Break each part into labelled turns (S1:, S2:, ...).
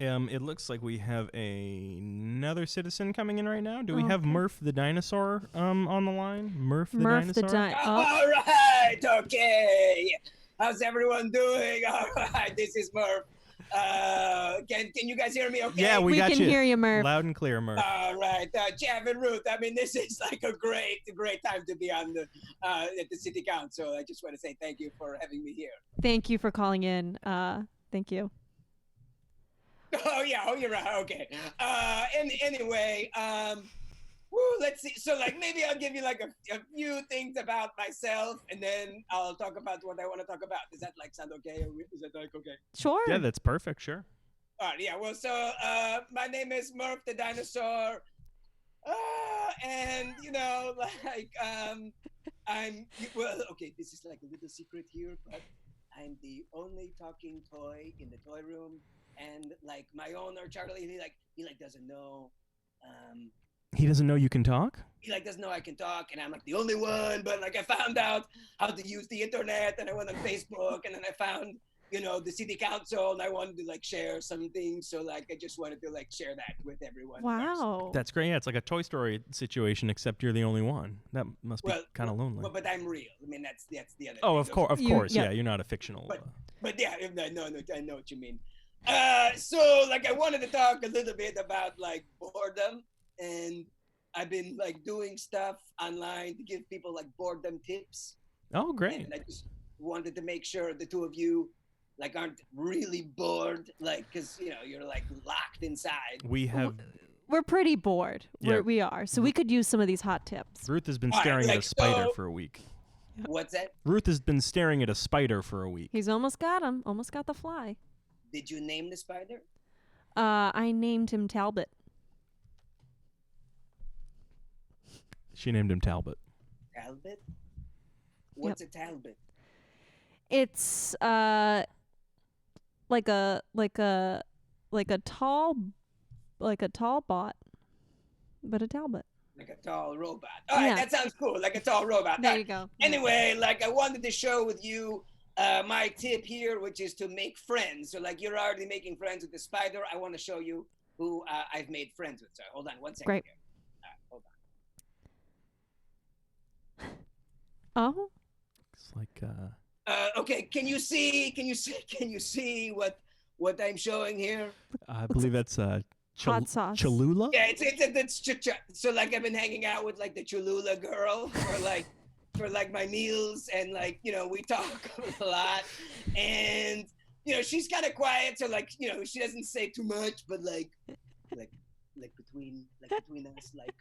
S1: Um, it looks like we have a- another citizen coming in right now. Do we
S2: Oh,
S1: have
S2: okay.
S1: Murph the dinosaur um on the line? Murph the
S2: Murph the
S1: dinosaur.
S2: di- oh,
S3: All right, okay. How's everyone doing? All right, this is Murph. Uh, can can you guys hear me? Okay.
S1: Yeah, we, got
S2: can
S1: you.
S2: hear you, Murph.
S1: Loud and clear, Murph.
S3: All right, uh, Jeff and Ruth. I mean, this is like a great, great time to be on the uh, at the city council. I just want to say thank you for having me here.
S2: Thank you for calling in. Uh, thank you.
S3: Oh yeah, oh you're right. Okay. Uh, and anyway, um, woo, let's see. So like maybe I'll give you like a, a few things about myself, and then I'll talk about what I want to talk about. Is that like sound okay? Or Is that like okay?
S2: Sure.
S1: Yeah, that's perfect. Sure.
S3: All right, yeah. Well, so uh, my name is Murph the dinosaur, uh, and you know, like um, I'm well. Okay, this is like a little secret here, but I'm the only talking toy in the toy room, and like my owner Charlie, he like he like doesn't know. Um,
S1: He doesn't know you can talk.
S3: he like doesn't know I can talk, and I'm like the only one. But like I found out how to use the internet, and I went on Facebook, and then I found you know the city council, and I wanted to like share some things. So like I just wanted to like share that with everyone. first.
S2: Wow.
S1: That's great. Yeah, it's like a Toy Story situation, except you're the only one. That must be
S3: Well,
S1: kind of lonely.
S3: But, but I'm real. I mean that's that's the other.
S1: oh,
S3: thing.
S1: of course, of
S2: You-
S1: course.
S2: yeah.
S1: Yeah. you're not a fictional.
S3: But-
S1: uh,
S3: But yeah, if- no, no, no, I know what you mean. Uh, so like I wanted to talk a little bit about like boredom, and I've been like doing stuff online to give people like boredom tips.
S1: oh, great.
S3: And I just wanted to make sure the two of you like aren't really bored, like because you know you're like locked inside.
S1: We have
S2: We're pretty bored.
S1: Yeah. Mm-hmm.
S2: We're, we are. So we could use some of these hot tips.
S1: Ruth has been
S3: All right,
S1: staring at a
S3: like,
S1: spider
S3: so-
S1: for a week.
S3: What's that?
S1: Ruth has been staring at a spider for a week.
S2: He's almost got him. Almost got the fly.
S3: Did you name the spider?
S2: Uh, I named him Talbot.
S1: She named him Talbot.
S3: Talbot. What's a Talbot?
S2: It's uh, like a like a like a tall like a tall bot, but a Talbot.
S3: Like a tall robot. All right,
S2: Yeah.
S3: that sounds cool. Like a tall robot.
S2: There you go.
S3: anyway, like I wanted to share with you uh, my tip here, which is to make friends. So like you're already making friends with the spider. I want to show you who uh, I've made friends with. So hold on one second.
S2: Great.
S3: here. All right, hold on.
S2: Oh,
S1: It's like uh,
S3: Uh, okay, can you see? Can you see? Can you see what what I'm showing here?
S1: I believe that's uh, Chal-
S2: hot sauce.
S1: Cholula.
S3: Yeah, it's it's, it's, it's ch- ch- so like I've been hanging out with like the Cholula girl for like for like my meals and like you know we talk a lot and you know she's kind of quiet so like you know she doesn't say too much but like like like between like between us like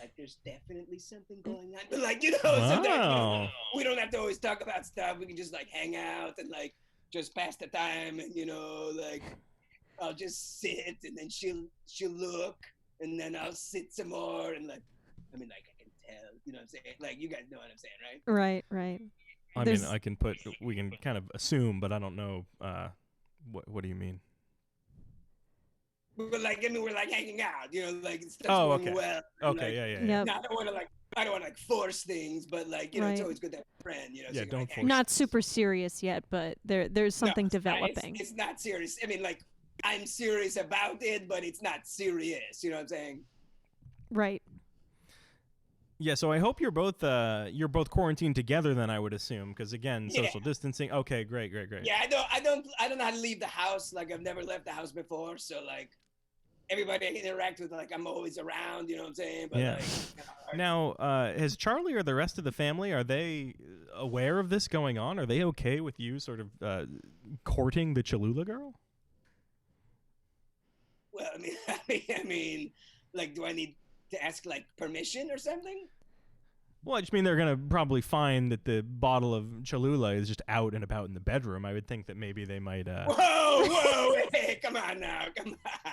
S3: like there's definitely something going on but like you know sometimes you
S1: Wow.
S3: know, we don't have to always talk about stuff. We can just like hang out and like just pass the time and you know like I'll just sit and then she'll she'll look and then I'll sit some more and like I mean like I can tell you know what I'm saying like you guys know what I'm saying right
S2: right, right.
S1: I
S2: There's-
S1: mean, I can put. We can kind of assume, but I don't know. Uh, what What do you mean?
S3: but like I mean we're like hanging out you know like stuff's
S1: Oh,
S3: going
S1: okay.
S3: well and,
S1: Okay.
S3: like,
S1: yeah. Yeah. Yeah.
S2: Yep.
S3: no, I don't want to like I don't want to like force things but like you know it's
S2: Right.
S3: always good to have a friend you know so
S1: Yeah,
S3: you can, like,
S1: don't
S3: hang
S1: force
S2: Not super serious yet, but there there's
S3: No,
S2: something
S3: it's not- it's-
S2: developing.
S3: It's, not serious. I mean, like, I'm serious about it, but it's not serious. You know what I'm saying?
S2: Right.
S1: Yeah, so I hope you're both uh, you're both quarantined together. Then I would assume, because again,
S3: Yeah.
S1: social distancing. Okay, great, great, great.
S3: Yeah, I don't, I don't, I don't know how to leave the house. Like, I've never left the house before, so like, everybody I interact with, like, I'm always around. You know what I'm saying? But
S1: Yeah.
S3: like, you know,
S1: Now, uh, has Charlie or the rest of the family are they aware of this going on? Are they okay with you sort of uh, courting the Cholula girl?
S3: well, I mean, I mean, I mean, like, do I need to ask like permission or something?
S1: Well, I just mean they're gonna probably find that the bottle of Cholula is just out and about in the bedroom. I would think that maybe they might. Uh,
S3: Whoa, whoa, hey, come on now, come on.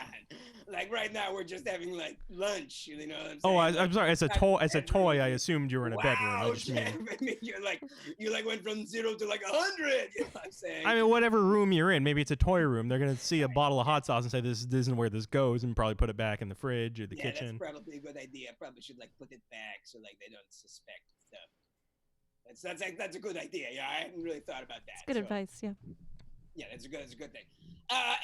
S3: Like right now, we're just having like lunch. You know what I'm saying?
S1: oh, I,
S3: Like,
S1: I'm sorry. As a
S3: Not
S1: toy, as a
S3: bedroom.
S1: toy, I assumed you were in a
S3: wow,
S1: bedroom. I just mean.
S3: Jeff, I mean, you're like you like went from zero to like a hundred. You know what I'm saying?
S1: I mean, whatever room you're in, maybe it's a toy room. They're gonna see a bottle of hot sauce and say this, this isn't where this goes, and probably put it back in the fridge or the
S3: yeah,
S1: kitchen.
S3: that's probably a good idea. I probably should like put it back so like they don't suspect stuff. That's that's like, that's a good idea. Yeah, I hadn't really thought about that.
S2: Good
S3: so,
S2: advice. Yeah.
S3: Yeah, that's a good that's a good thing. Uh,